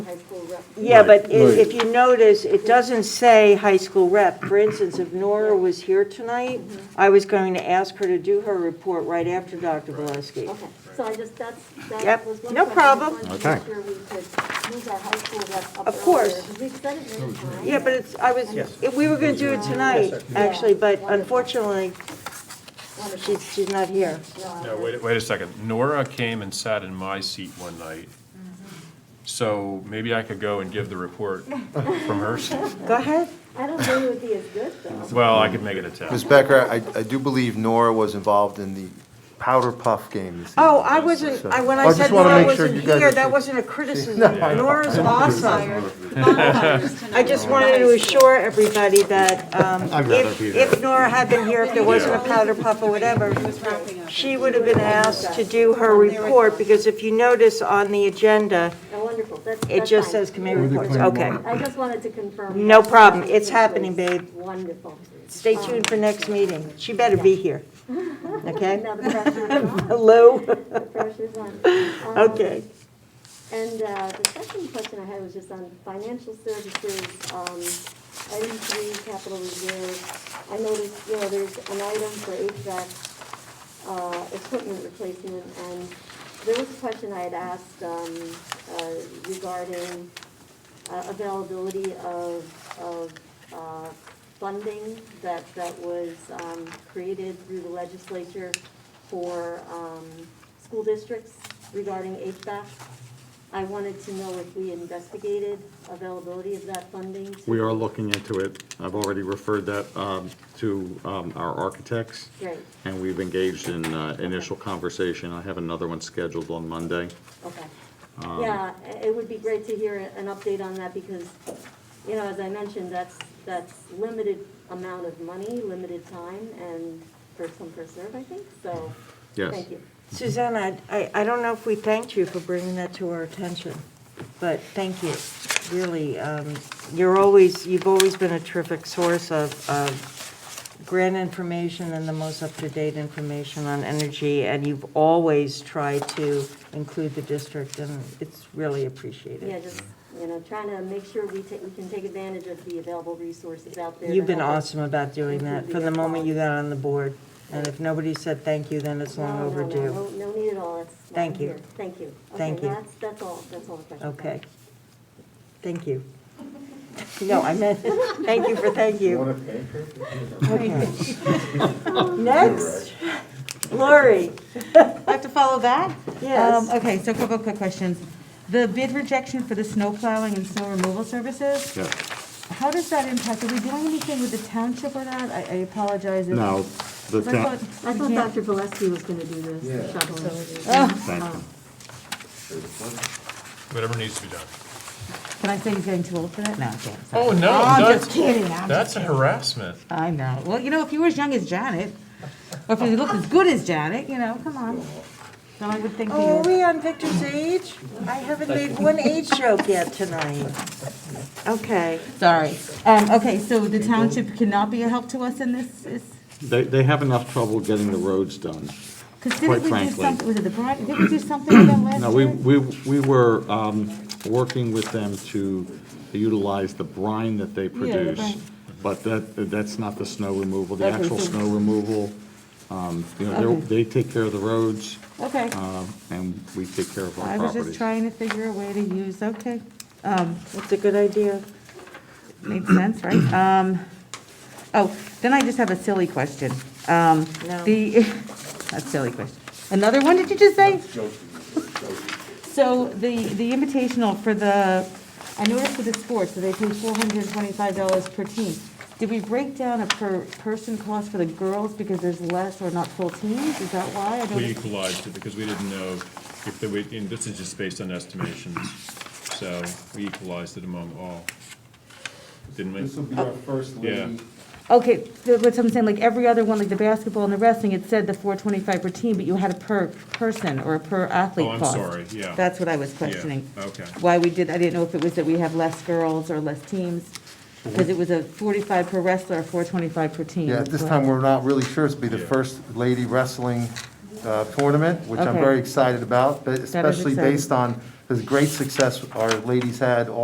high school rep. Yeah, but i- Right. if you notice, it doesn't say high school rep. For instance, if Nora was here tonight, I was going to ask her to do her report right after Dr. Valesky. Okay, so I just, that's, that Yep, was one question. no problem. I wanted to Okay. make sure we could move our high school rep up Of course. earlier, 'cause we've said it many times. Yeah, but it's, I was, if we were going to do it tonight, actually, but unfortunately, Wonderful. she's, she's not here. Uh, No, wait, wait a second. Nora came and sat in my seat one night. So maybe I could go and give the report from her seat. Go ahead. I don't think it would be as good, though. Well, I could make it a ten. Ms. Becker, I, I do believe Nora was involved in the powder puff game this evening. Oh, I wasn't, I- when I I just said wanna Nora make sure wasn't you guys here, are- that wasn't a criticism. Nora's awesome. I just wanted to assure everybody that um, I'd rather if be there. if Nora had been here, if there wasn't a powder puff or whatever, she would have been asked to do her report, because if you notice on the agenda, No, Wonderful, that's, that's it just fine. says committee reports. Okay. I just wanted to confirm. No that. problem. It's happening, babe. Wonderful. Stay tuned for next meeting. She better be here. Okay? Now the pressure's on, Hello? the pressure's on. Um, Okay. And uh, the second question I had was just on financial services, um, item three, capital reserve. I noticed, you know, there's an item for HVAC uh, equipment replacement, and there was a question I had asked um, uh, regarding uh, availability of, of uh, funding that, that was um, created through the legislature for um, school districts regarding HVAC. I wanted to know if we investigated availability of that funding. to- We are looking into it. I've already referred that um, to um, our architects. Great. And we've engaged in uh, initial conversation. I have another one scheduled on Monday. Okay. Yeah, i- it would be great to hear an update on that because, you know, as I mentioned, that's, that's limited amount of money, limited time, and first come, first served, I think, so. Yes. Thank you. Susanna, I, I don't know if we thanked you for bringing that to our attention, but thank you. Really, um, you're always, you've always been a terrific source of, of grant information and the most up-to-date information on energy, and you've always tried to include the district, and it's really Yeah, appreciated. just, you know, trying to make sure we take, we can take advantage of the available resources out there. to You've been help us. awesome about doing that from the moment you got on the board, and if nobody said thank you, then it's long No, no, no, overdue. No, no need at all, that's. why I'm Thank you. here. Thank you. Okay, Thank you. no, That's, that's all, that's all the questions. I have. Okay. Thank you. No, I meant, thank you for thank you. Okay. Next, Lori. Like to follow that? Yes. Um, Okay, so a couple of quick questions. The bid rejection for the snow plowing and snow removal services, Yeah. how does that impact? Are we doing anything with the township or not? I I apologize. if- Now, the Because I town, thought- I we thought can't- Dr. Valesky was going to do this, shoveling. thank you. Whatever needs to be done. Can I say he's getting too old for that? No, I can't. Oh, no, I'm just that's, kidding. I'm that's a harassment. I know. Well, you know, if you were as young as Janet, or if you looked as good as Janet, you know, come on. So I would think you Oh, are were. we on Victor's age? I haven't made one age joke yet tonight. Okay. Sorry. Um, Okay, so the township cannot be a help to us in this? is- They, they have enough trouble getting the roads done. Quite Because didn't we do frankly. something, was it the, Bri- didn't we do something with them No, last we, year? we, we were um, working with them to utilize the brine that they the produce. brine. But that, that's not the snow removal, the Okay, actual so- snow removal. um, You know, Okay. they're- they take care of the roads, Okay, um, and we take care of our I was properties. just trying to figure a way to use, okay, Um, That's a good idea. makes sense, right? Um, oh, then I just have a silly question. Um, No. the, that's a silly question. Another one, did you just say? So the, the invitational for the, I noticed for the sports, so they pay four hundred and twenty-five dollars per team. Did we break down a per person cost for the girls because there's less or not full teams? Is that why? I don't. We equalized it because we didn't know if there, were- and this is just based on estimations. So we equalized it among all. Didn't we? This will be our first Yeah. lady. Okay, th- what I'm saying, like every other one, like the basketball and the wrestling, it said the four twenty-five per team, but you had a per person or a per athlete Oh, I'm cost. sorry, yeah. That's what I was questioning. okay. Why we did, I didn't know if it was that we have less girls or less teams, because it was a forty-five per wrestler, four twenty-five per team. Yeah, at this Well, time, we're not really sure. It's be the Yeah. first lady wrestling uh, tournament, which I'm Okay. very excited about, but especially exciting. based on the great success our ladies had all